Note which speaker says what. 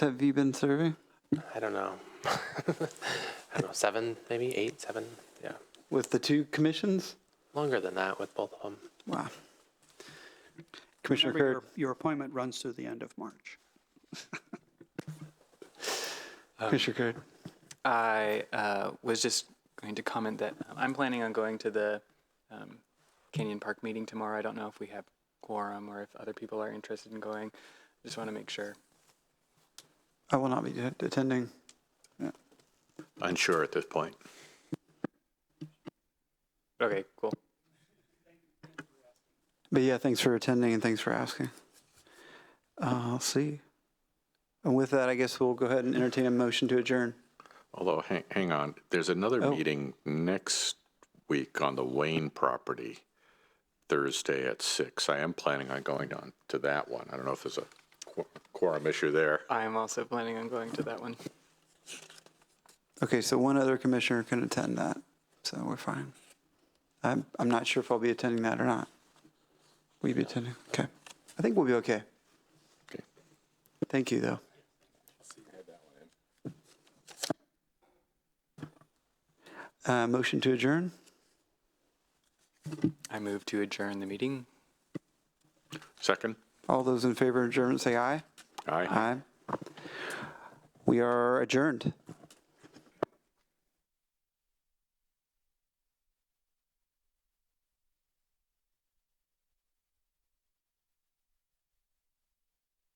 Speaker 1: have you been serving
Speaker 2: I don't know. I don't know, seven, maybe eight, seven. Yeah,
Speaker 1: with the two commissions?
Speaker 2: longer than that with both of them.
Speaker 1: Wow. Commissioner
Speaker 3: Remember,
Speaker 1: Curd,
Speaker 3: your, your appointment runs through the end of March.
Speaker 1: Commissioner Curd.
Speaker 4: I uh, was just going to comment that um, I'm planning on going to the um, Canyon Park meeting tomorrow. I don't know if we have quorum or if other people are interested in going. Just want to make sure.
Speaker 1: I will not be attending.
Speaker 5: unsure at this point.
Speaker 4: Okay, cool.
Speaker 1: But yeah, thanks for attending and thanks for asking. Uh, I'll see. And with that, I guess we'll go ahead and entertain a motion to adjourn.
Speaker 5: Although, hang, hang on, there's another
Speaker 1: Oh.
Speaker 5: meeting next week on the Wayne property, Thursday at six. I am planning on going on to that one. I don't know if there's a qu- quorum issue there.
Speaker 4: I'm also planning on going to that one.
Speaker 1: Okay, so one other commissioner can attend that, so we're fine. I'm, I'm not sure if I'll be attending that or not. Will you be attending? Okay. I think we'll be okay.
Speaker 5: Okay.
Speaker 1: Thank you, though. Uh, motion to adjourn?
Speaker 4: I move to adjourn the meeting.
Speaker 5: Second?
Speaker 1: All those in favor of adjournment, say aye.
Speaker 5: Aye.
Speaker 1: Aye. We are adjourned.